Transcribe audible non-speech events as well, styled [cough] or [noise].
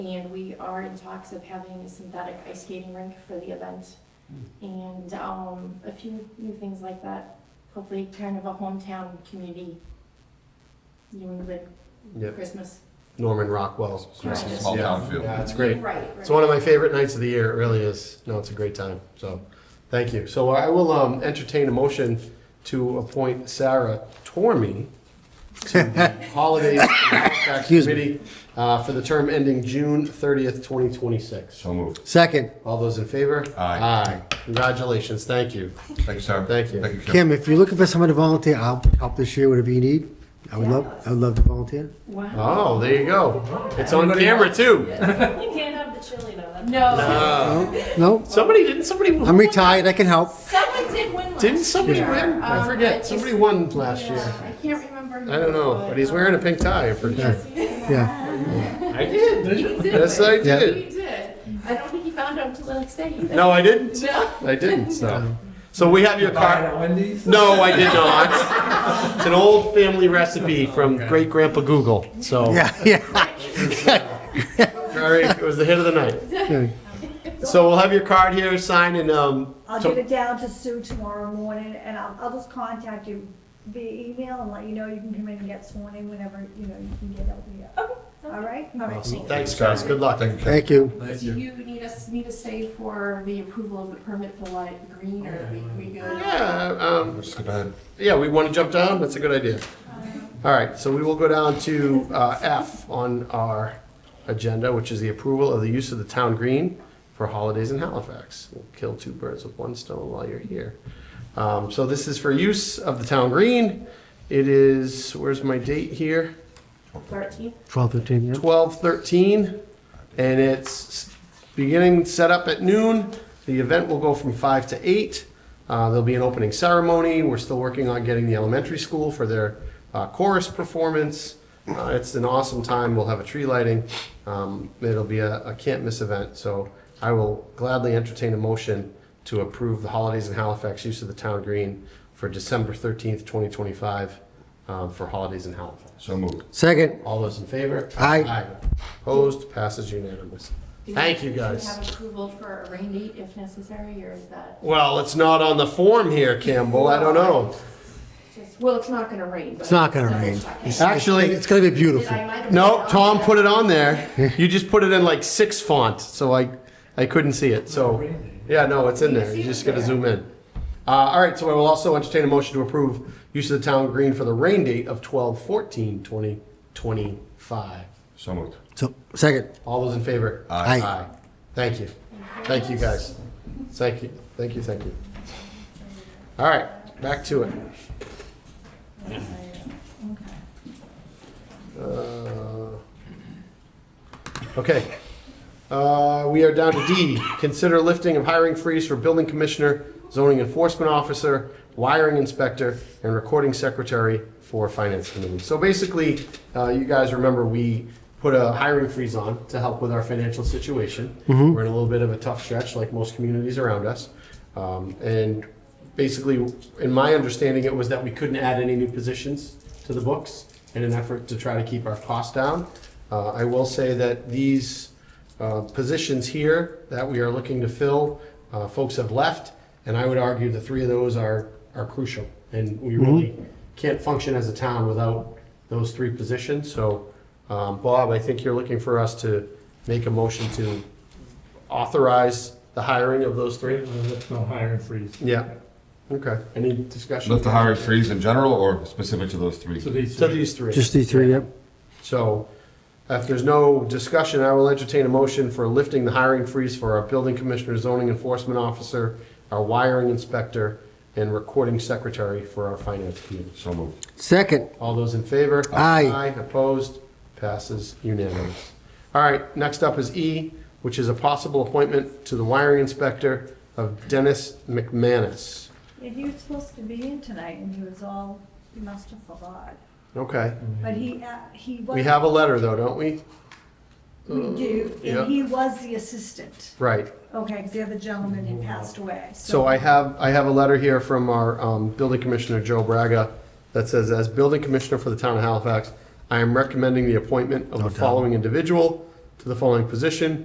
And we are in talks of having a synthetic ice skating rink for the event. Hmm. And um, a few new things like that. Hopefully kind of a hometown community, New England Yep. Christmas. Norman Rockwell's Christmas. Small yeah. town feel. Yeah, it's great. Right. It's one of my favorite nights of the year. It really is. No, it's a great time. So, thank you. So I will um, entertain a motion to appoint Sarah Tormey to the [laughs] Holiday and Outback Excuse me. Committee uh, for the term ending June 30th, 2026. So moved. Second, All those in favor? Aye. Aye. Congratulations. Thank you. Thank you, Sarah. Thank you. Thank you, Kim. Kim, if you're looking for someone to volunteer, I'll help this year, whatever you need. I would love, I would love to volunteer. Wow. Oh, there you go. It's on camera too. Uh, You can't have the chili though. That's No, No, no, Somebody didn't somebody I'm retired, I can help. someone did win last didn't somebody year. win? I Um, forget. it's- Somebody won last yeah, year. I can't remember. uh, I don't know, but he's wearing a pink tie. I'm pretty sure. Yeah, I did. He did. [laughs] Yes, I win. did. He did. I don't think he found out until the next day either. No, I didn't. No. I didn't. So, so we have your Buy it card. at Wendy's? No, I did not. It's an old family recipe from great grandpa Google. So, yeah, yeah. [laughs] very, it was the hit of the night. yeah. So we'll have your card here, sign, and um, I'll So- get it down to Sue tomorrow morning, and I'll, I'll just contact you via email and let you know you can come in and get sworn in whenever, you know, you can get out here. Okay. All right? All right. awesome. thanks guys. Good luck. Thank you, Kim. Thank you. Thank Do you. you need us, need to stay for the approval of the permit for light green, or we, we good? Yeah, um, Let's skip ahead. Yeah, we want to jump down? That's a good idea. All right, so we will go down to uh, F on our agenda, which is the approval of the use of the town green for holidays in Halifax. We'll kill two birds with one stone while you're here. Um, So this is for use of the town green. It is, where's my date here? Thirteen? Twelve, thirteen, yeah. 12:13, and it's beginning set up at noon. The event will go from 5 to 8. Uh, There'll be an opening ceremony. We're still working on getting the elementary school for their uh, chorus performance. Uh, It's an awesome time. We'll have a tree lighting. Um, It'll be a a can't miss event, so I will gladly entertain a motion to approve the holidays in Halifax use of the town green for December 13th, 2025, um, for holidays in Halifax. So moved. Second, All those in favor? Aye. Opposed, passes unanimous. Do we- Thank you, do we guys. have approval for a rain date if necessary, or is that Well, it's not on the form here, Campbell, I don't know. just, well, it's not gonna rain, but. it's not gonna double rain. checking. Actually- It's gonna be Did beautiful. I might have- No, Tom put it on there. You just put it in like six font, so I, I couldn't see it, so. Yeah, no, it's in there, you just gotta zoom in. Uh, all right, so I will also entertain a motion to approve use of the town green for the rain date of 12-14-2025. So moved. So, second, All those in favor? Aye. Aye. Thank you. Thank you, guys. Thank you, thank you, thank you. All right, back to it. Uh, Okay. Uh, We are down to D, consider lifting of hiring freeze for building commissioner, zoning enforcement officer, wiring inspector, and recording secretary for finance committee. So basically, uh, you guys remember, we put a hiring freeze on to help with our financial situation. We're in a little bit of a tough stretch, like most communities around us. Um, And basically, in my understanding, it was that we couldn't add any new positions to the books in an effort to try to keep our costs down. Uh, I will say that these uh, positions here that we are looking to fill, uh, folks have left, and I would argue the three of those are, are crucial. And we Mm-hmm. really can't function as a town without those three positions. So, um, Bob, I think you're looking for us to make a motion to authorize the hiring of those three? There's no hiring freeze. Yeah. Okay, any discussion? Lift the hiring freeze in general or specific to those three? So these. To these three. just these three, yep. So if there's no discussion, I will entertain a motion for lifting the hiring freeze for our building commissioner, zoning enforcement officer, our wiring inspector, and recording secretary for our finance committee. So moved. Second, All those in favor? Aye. opposed, passes unanimous. All right, next up is E, which is a possible appointment to the wiring inspector of Dennis McManus. And he was supposed to be in tonight, and he was all, he must have forgot. Okay, But he, uh, he was. we have a letter though, don't we? We do, yeah. and he was the assistant, Right. okay, because the other gentleman had passed away, So I have, I have a letter here from our um, building commissioner, Joe Braga, that says, as building commissioner for the town of Halifax, I am recommending the appointment of the following individual to the following position